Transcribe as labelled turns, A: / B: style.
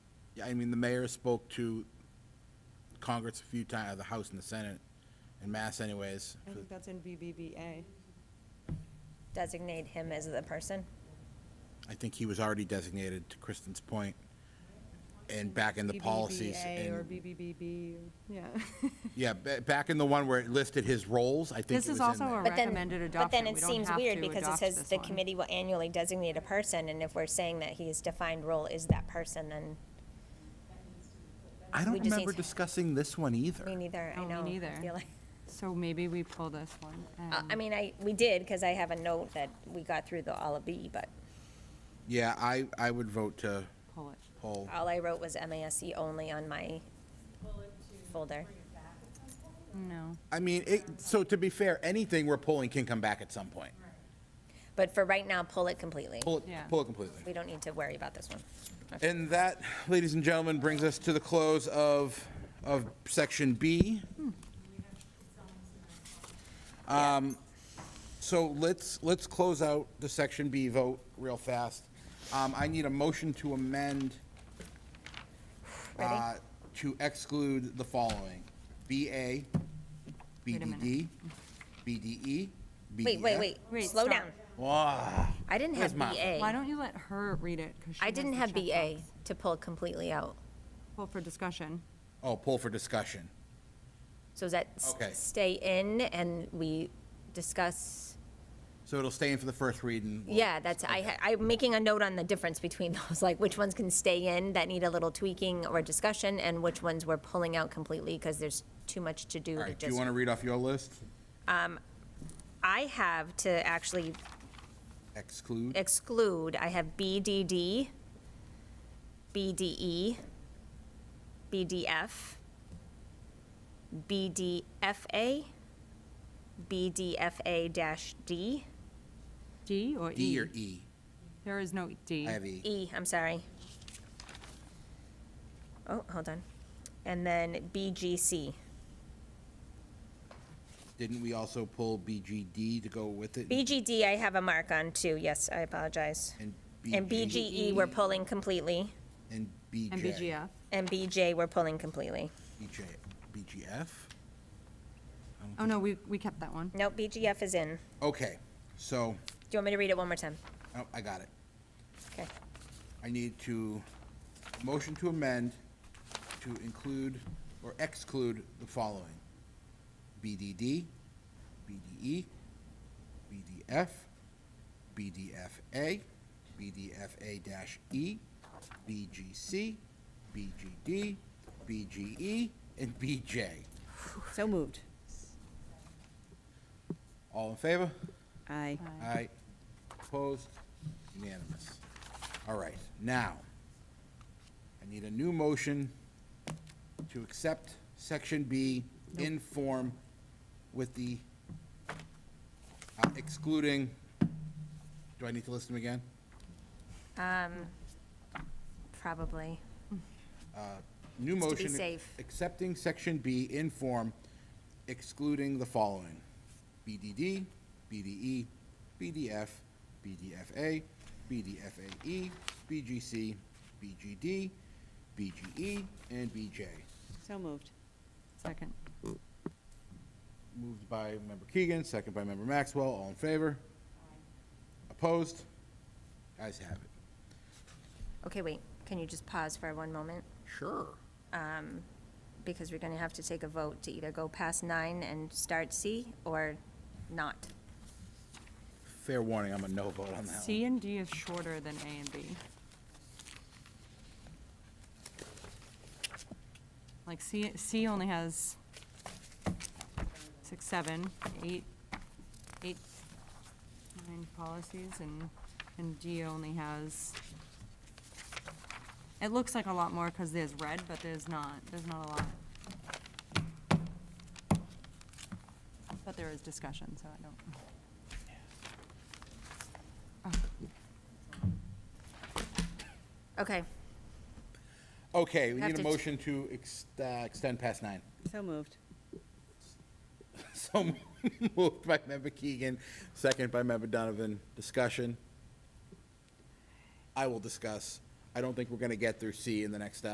A: I mean, the mayor spoke to Congress a few times, the House and the Senate, in mass anyways.
B: I think that's in BBBA.
C: designate him as the person?
A: I think he was already designated, to Kristen's point, and back in the policies.
B: BBBA
A: and-
B: or BBBB, yeah.
A: Yeah, ba- back in the one where it listed his roles, I think it was
D: This
A: in
D: is
A: there.
D: also a
C: But then-
D: recommended adoption.
C: But then
D: We
C: it
D: don't
C: seems
D: have
C: weird
D: to
C: because it
D: adopt
C: says
D: this
C: the
D: one.
C: committee will annually designate a person, and if we're saying that his defined role is that person, then
A: I don't
C: we just need
A: remember
C: to-
A: discussing this one either.
C: me neither,
D: No,
C: I
D: me
C: know. I
D: neither.
C: feel like-
D: So maybe we pull this one.
C: Uh, I
D: and-
C: mean, I, we did, because I have a note that we got through the all of B, but
A: Yeah, I, I would vote to
D: Pull it.
A: poll.
C: all I wrote was MASC only on my folder.
D: No.
A: I mean, it, so to be fair, anything we're pulling can come back at some point.
C: But for right now, pull it completely.
A: Pull it,
D: Yeah.
A: pull it completely.
C: We don't need to worry about this one.
A: And that, ladies and gentlemen, brings us to the close of, of section B. Um, so let's, let's close out the section B vote real fast. Um, I need a motion to amend,
C: Ready?
A: uh, to exclude the following. BA, E,
D: Wait a minute.
A: BDD, BDE, BDF.
C: Wait, wait, wait,
D: Wait,
C: slow
D: stop.
C: down. I didn't have
A: Where's my-
D: Why
C: BA.
D: don't you let her read it? 'cause she
C: I
D: has
C: didn't
D: the
C: have BA
D: checkbox.
C: to pull completely out.
D: Pull for discussion.
A: Oh, pull for discussion.
C: So does that s-
A: Okay.
C: stay in and we discuss?
A: So it'll stay in for the first reading. We'll-
C: Yeah, that's, I, ha- I'm making a note on the difference between those, like which ones can stay in that need a little tweaking or discussion and which ones we're pulling out completely because there's too much to do
A: All
C: to
A: right, do you
C: just.
A: want to read off your list?
C: I have to actually
A: Exclude.
C: exclude, I have BDD, BDE, BDF, BDFA, BDFA-D,
D: D or E?
A: D or E?
D: There is no D.
A: I have E.
C: E, I'm sorry. Oh, hold on. And then BGC.
A: Didn't we also pull BGD to go with it?
C: BGD, I have a mark on too, yes, I apologize.
A: And E
C: And
A: BG
C: BGE, we're pulling completely,
A: And BJ?
D: And BGF.
C: and BJ, we're pulling completely.
A: BJ, BGF?
D: Oh, no, we, we kept that one.
C: Nope, BGF is in.
A: Okay, so,
C: Do you want me to read it one more time?
A: oh, I got it.
C: Okay.
A: I need to, motion to amend to include or exclude the following. BDD, BDE, BDF, BDFA, BDFA-E, BGC, BGD, BGE, E, and BJ.
E: So moved.
A: All in favor?
E: Aye.
A: Aye. Opposed? Unanimous. All right, now, I need a new motion to accept Section B in form with the uh, excluding, do I need to list them again?
C: Probably.
A: New
C: Just
A: motion.
C: to be safe.
A: Accepting Section B in form excluding the following. BDD, BDE, BDF, BDFA, BDFAE, BGC, BGD, BGE, E, and BJ.
E: So moved.
D: Second.
A: Moved by Member Keegan, second by Member Maxwell. All in favor? Opposed? Guys have it.
C: Okay, wait, can you just pause for one moment?
A: Sure.
C: Because we're gonna have to take a vote to either go past nine and start C or not.
A: Fair warning, I'm a no vote on that one.
D: C and D is shorter than A and B. Like C, C only has six, seven, eight, eight, nine policies, and, and D only has, it looks like a lot more because there's red, but there's not, there's not a lot. But there is discussion, so I don't.
C: Okay,
A: Okay, we
C: Have
A: need a
C: to ch-
A: motion to ex- uh, extend past nine.
E: So moved.
A: So moved by member Keegan, second by member Donovan. Discussion. I will discuss. I don't think we're going to get through C in the next hour.